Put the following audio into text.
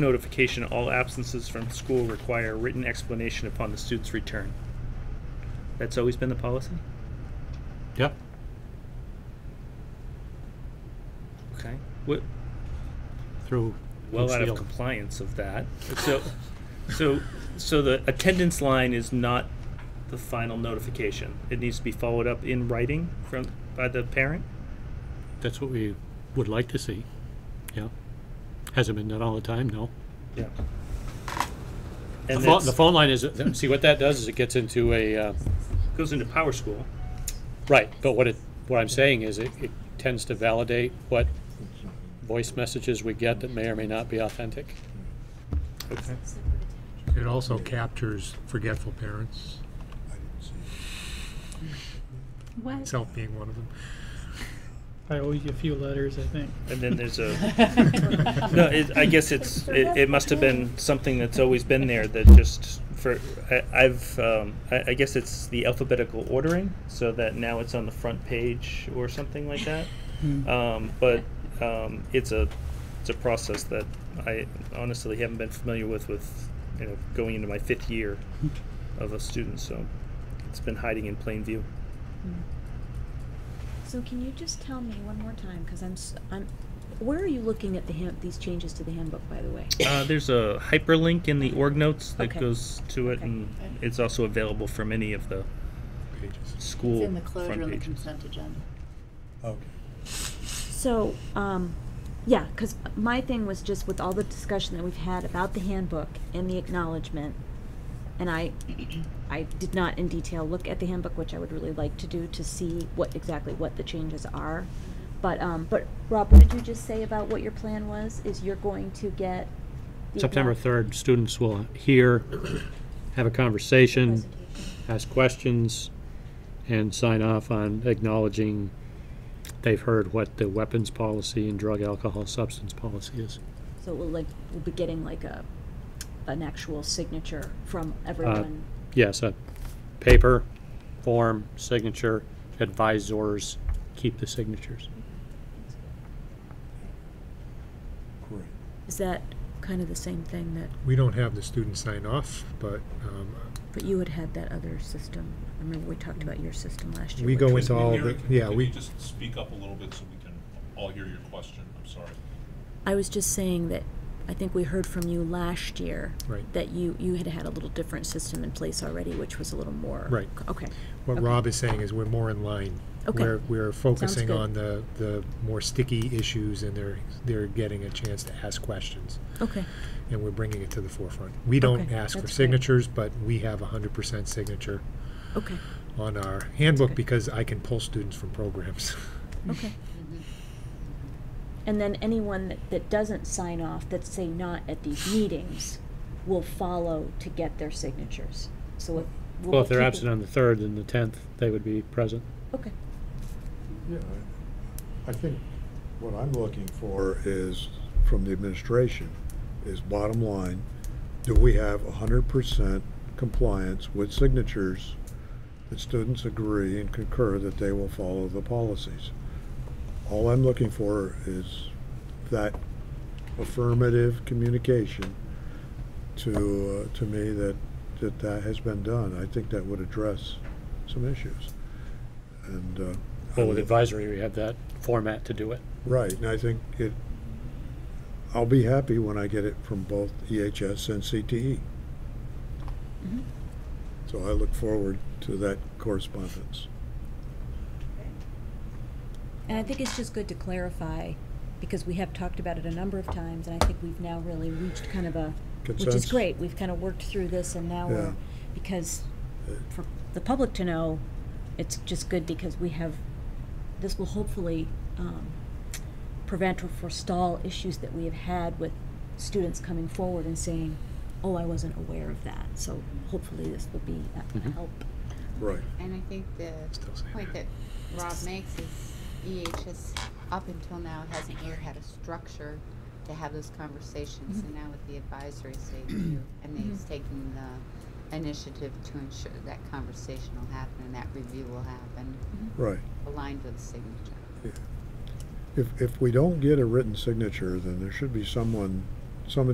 notification, all absences from school require written explanation upon the student's return. That's always been the policy? Yep. Okay. What, Through. well out of Lucille. compliance of that. So, so, so the attendance line is not the final notification. It needs to be followed up in writing from, by the parent? That's what we would like to see. Yeah. Hasn't been done all the time, no. Yeah. The And phone, the that phone line is, see, what that does is it gets into a, uh, goes into Power School. right, but what it, what I'm saying is it, it tends to validate what voice messages we get that may or may not be authentic. Okay. It also captures forgetful parents, What? self being one of them. I owe you a few letters, I think. And then there's a, no, it, I guess it's, it, it must have been something that's always been there that just for, I, I've, um, I, I guess it's the alphabetical ordering so that now it's on the front page or something like that. Hmm. Um, but um, it's a it's a process that I honestly haven't been familiar with with you know going into my fifth year of a student, so it's been hiding in plain view. Hmm. So can you just tell me one more time, because I'm, s- I'm, where are you looking at the hand, these changes to the handbook, by the way? Uh, there's a hyperlink in the org notes that Okay. goes to it, Okay. and it's also available from any of the school It's in the front closure of the pages. consent agenda. Okay. So, um, yeah, because my thing was just with all the discussion that we've had about the handbook and the acknowledgement, and I, I did not in detail look at the handbook, which I would really like to do to see what exactly what the changes are. But, um, but Rob, what did you just say about what your plan was? Is you're going to get the September acknowledge- 3rd, students will hear, have a conversation, ask questions, and sign off on acknowledging they've heard what the weapons policy and drug alcohol substance policy is. So we'll like, we'll be getting like a, an actual signature from everyone. Uh, Yes, a paper, form, signature, advisors, keep the signatures. Great. Is that kind of the same thing that, We don't have the students sign off, but um, but you had had that other system? I remember we talked about your system last year. we which go was- into all the, yeah, Can you we, just speak up a little bit so we can all hear your question? I'm sorry. I was just saying that I think we heard from you last year. Right. That you, you had had a little different system in place already, which was a little more. Right. Okay. what Rob is saying is we're more in line. Okay. We're, we're focusing good. on the, the more sticky issues and they're, they're getting a chance to ask questions. Okay. And we're bringing it to the forefront. We don't Okay, ask for that's great. signatures, but we have a hundred percent signature Okay. on our handbook good. because I can pull students from programs. Okay. And then anyone that, that doesn't sign off, that's say not at these meetings, will follow to get their signatures. So if. we'll Well, if they're keep it- absent on the 3rd and the 10th, they would be present. Okay, Yeah, I- I think what I'm looking for is, from the administration, is bottom line, do we have hundred percent compliance with signatures that students agree and concur that they will follow the policies? All I'm looking for is that affirmative communication to, uh, to me that, that that has been done. I think that would address some issues. And, uh. I Well, with would- advisory, we have that format to do it. Right, and I think it, I'll be happy when I get it from both EHS and CTE. So I look forward to that correspondence. and I think it's just good to clarify, because we have talked about it a number of times, and I think we've now really reached kind of a, which is Consensus. great, we've kind of worked through this, and now Yeah. we're, because Uh, for the public to know, it's just good because we have, this will hopefully, um, prevent or forestall issues that we have had with students coming forward and saying, oh, I wasn't aware of that, so hopefully this will be a- a Mhm. help. Right. And I think the Still saying point that. that Rob makes is EHS up until now hasn't really had a structure to have those conversations. And now with the advisory, they do, and they've taken the initiative to ensure that conversation will happen and that review will happen Right. aligned with the signature. If, if we don't get a written signature, then there should be someone, some